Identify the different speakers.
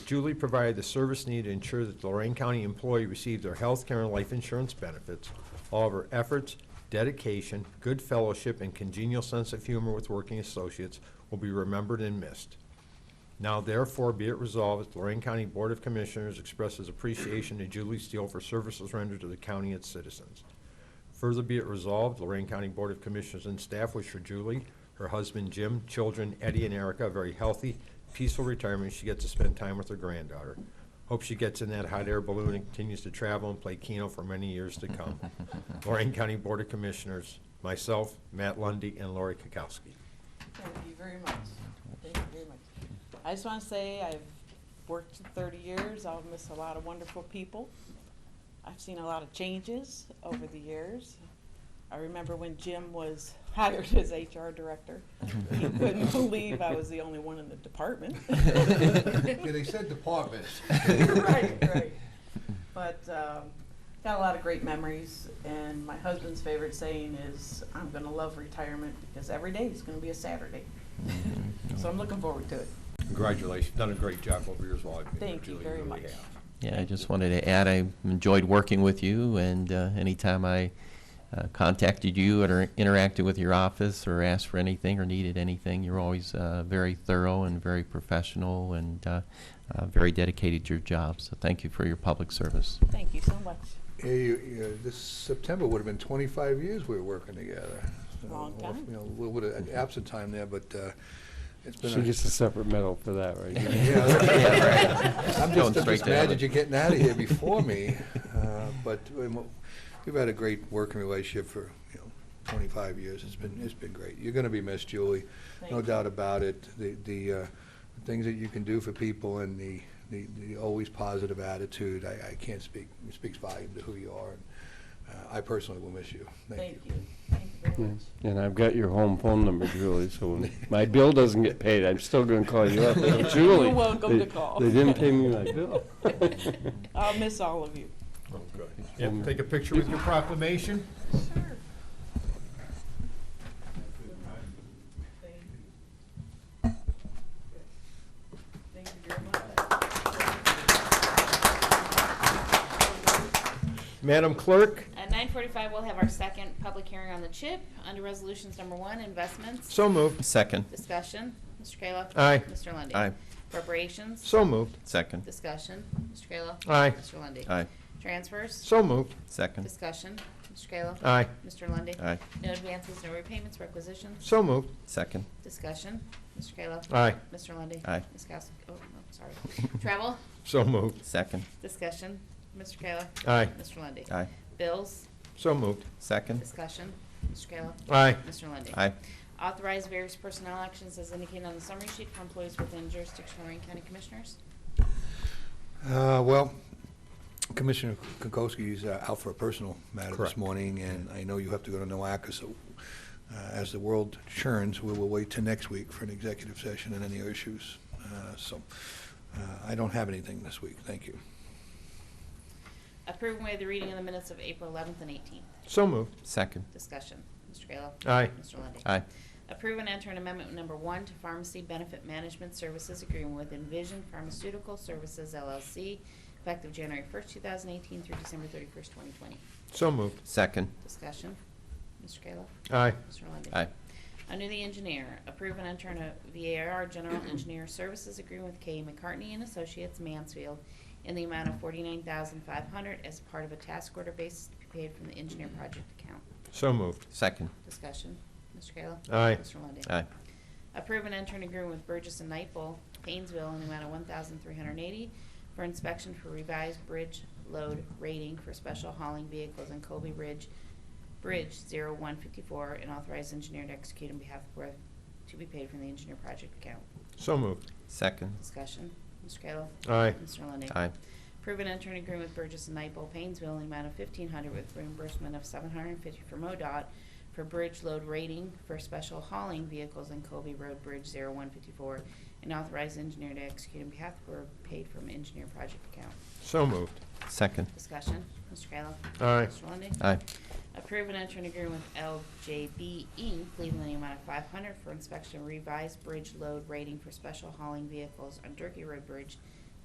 Speaker 1: Julie provided the service needed to ensure that the Lorraine County employee received their health care and life insurance benefits. All of her efforts, dedication, good fellowship, and congenial sense of humor with working associates will be remembered and missed. Now therefore be it resolved that the Lorraine County Board of Commissioners expresses appreciation to Julie Steele for services rendered to the county and its citizens. Further be it resolved, Lorraine County Board of Commissioners and staff wish for Julie, her husband Jim, children Eddie and Erica, a very healthy, peaceful retirement. She gets to spend time with her granddaughter. Hope she gets in that hot air balloon and continues to travel and play Keno for many years to come. Lorraine County Board of Commissioners, myself, Matt Lundy, and Lori Kukowski.
Speaker 2: Thank you very much. Thank you very much. I just want to say I've worked thirty years. I'll miss a lot of wonderful people. I've seen a lot of changes over the years. I remember when Jim was hired as HR director. He couldn't believe I was the only one in the department.
Speaker 3: Yeah, they said departments.
Speaker 2: Right, right. But um, got a lot of great memories, and my husband's favorite saying is, "I'm going to love retirement because every day is going to be a Saturday." so I'm looking forward to it.
Speaker 1: Congratulations, done a great job over yours while I've been here,
Speaker 2: Thank you
Speaker 1: Julie,
Speaker 2: very
Speaker 1: really
Speaker 2: much.
Speaker 1: have.
Speaker 4: Yeah, I just wanted to add, I enjoyed working with you, and uh, anytime I uh, contacted you or interacted with your office or asked for anything or needed anything, you're always uh, very thorough and very professional and uh, uh, very dedicated to your job. So thank you for your public service.
Speaker 2: Thank you so much.
Speaker 3: Yeah, you, you, this September would have been twenty-five years we were working together. So,
Speaker 2: Long
Speaker 3: well,
Speaker 2: time.
Speaker 3: You know, a little bit of absent time there, but, uh, it's been.
Speaker 5: She
Speaker 3: a-
Speaker 5: gets a separate medal for that, right?
Speaker 3: Yeah,
Speaker 4: Yeah, right.
Speaker 3: I'm
Speaker 4: Going
Speaker 3: just, I'm
Speaker 4: straight
Speaker 3: just
Speaker 4: to heaven.
Speaker 3: mad that you're getting out of here before me, uh, but um, we've had a great working relationship for, you know, twenty-five years, it's been, it's been great. You're gonna be missed, Julie,
Speaker 2: Thank
Speaker 3: no
Speaker 2: you.
Speaker 3: doubt about it. The, the, uh, things that you can do for people and the, the, the always positive attitude, I, I can't speak, it speaks volume to who you are. and uh, I personally will miss you, thank
Speaker 2: Thank
Speaker 3: you.
Speaker 2: you. Thank you very much.
Speaker 5: And I've got your home phone number, Julie, so when my bill doesn't get paid, I'm still gonna call you up.
Speaker 2: You're
Speaker 5: Julie.
Speaker 2: welcome
Speaker 5: they-
Speaker 2: to call."
Speaker 5: They didn't pay me my bill.
Speaker 2: I'll miss all of you.
Speaker 1: Yeah, Take a picture with your proclamation.
Speaker 2: Sure. Thank you very much.
Speaker 1: Madam Clerk,
Speaker 6: At nine forty-five, we'll have our second public hearing on the CHIP under resolutions number one, investments.
Speaker 1: so moved.
Speaker 4: Second.
Speaker 6: Discussion, Mr. Kayla.
Speaker 1: Aye.
Speaker 6: Mr. Lundey.
Speaker 4: Aye.
Speaker 6: Appropriations.
Speaker 1: So moved.
Speaker 4: Second.
Speaker 6: Discussion, Mr. Kayla.
Speaker 1: Aye.
Speaker 6: Mr. Lundey.
Speaker 4: Aye.
Speaker 6: Transfers.
Speaker 1: So moved.
Speaker 4: Second.
Speaker 6: Discussion, Mr. Kayla.
Speaker 1: Aye.
Speaker 6: Mr. Lundey.
Speaker 4: Aye.
Speaker 6: No advances, no repayments, requisitions.
Speaker 1: So moved.
Speaker 4: Second.
Speaker 6: Discussion, Mr. Kayla.
Speaker 1: Aye.
Speaker 6: Mr. Lundey.
Speaker 4: Aye.
Speaker 6: Ms. Kowski, oh, no, sorry. Travel.
Speaker 1: So moved.
Speaker 4: Second.
Speaker 6: Discussion, Mr. Kayla.
Speaker 1: Aye.
Speaker 6: Mr. Lundey.
Speaker 4: Aye.
Speaker 6: Bills.
Speaker 1: So moved.
Speaker 4: Second.
Speaker 6: Discussion, Mr. Kayla.
Speaker 1: Aye.
Speaker 6: Mr. Lundey.
Speaker 4: Aye.
Speaker 6: Authorize various personnel actions as indicated on the summary sheet for employees within jurisdiction of Lorraine County Commissioners.
Speaker 3: Uh, Well, Commissioner Kokoski is uh, out for a personal matter this
Speaker 1: Correct.
Speaker 3: morning, and I know you have to go to NOACA, so uh, as the world churns, we will wait till next week for an executive session and any issues. Uh, So uh, I don't have anything this week, thank you.
Speaker 6: Approve and waive the reading of the minutes of April 11th and 18th.
Speaker 1: So moved.
Speaker 4: Second.
Speaker 6: Discussion. Mr. Kayla.
Speaker 1: Aye.
Speaker 6: Mr. Lundey.
Speaker 4: Aye.
Speaker 6: Approve and enter an amendment number one to pharmacy benefit management services agreement with Envision Pharmaceutical Services LLC effective January 1st, 2018 through December 31st, 2020.
Speaker 1: So moved.
Speaker 4: Second.
Speaker 6: Discussion. Mr. Kayla.
Speaker 1: Aye.
Speaker 6: Mr. Lundey.
Speaker 4: Aye.
Speaker 6: Under the engineer, approve and enter a VAR General Engineer Services Agreement with K. McCartney and Associates Mansfield in the amount of forty-nine thousand five hundred as part of a task order basis to be paid from the engineer project account.
Speaker 1: So moved.
Speaker 4: Second.
Speaker 6: Discussion. Mr. Kayla?
Speaker 1: Aye.
Speaker 6: Mr. Lundey?
Speaker 4: Aye.
Speaker 6: Approve and enter an agreement with Burgess and Nightfall, Painesville, in the amount of one thousand three hundred and eighty for inspection for revised bridge load rating for special hauling vehicles on Colby Bridge, Bridge zero one fifty-four, and authorize engineer to execute on behalf of Borough to be paid from the engineer project account.
Speaker 1: So moved.
Speaker 4: Second.
Speaker 6: Discussion. Mr. Kayla?
Speaker 1: Aye.
Speaker 6: Mr. Lundey?
Speaker 4: Aye.
Speaker 6: Approve and enter an agreement with Burgess and Nightfall Painesville in the amount of fifteen hundred with reimbursement of seven hundred and fifty for MoDOT for bridge load rating for special hauling vehicles on Colby Road Bridge zero one fifty-four and authorize engineer to execute on behalf of Borough paid from engineer project account.
Speaker 1: So moved.
Speaker 4: Second.
Speaker 6: Discussion, Mr. Kayla.
Speaker 1: Aye.
Speaker 6: Mr. Lundey.
Speaker 4: Aye.
Speaker 6: Approve and enter an agreement with LJB Inc., Cleveland, in E, the amount of five hundred for inspection of revised bridge load rating for special hauling vehicles on Turkey Road Bridge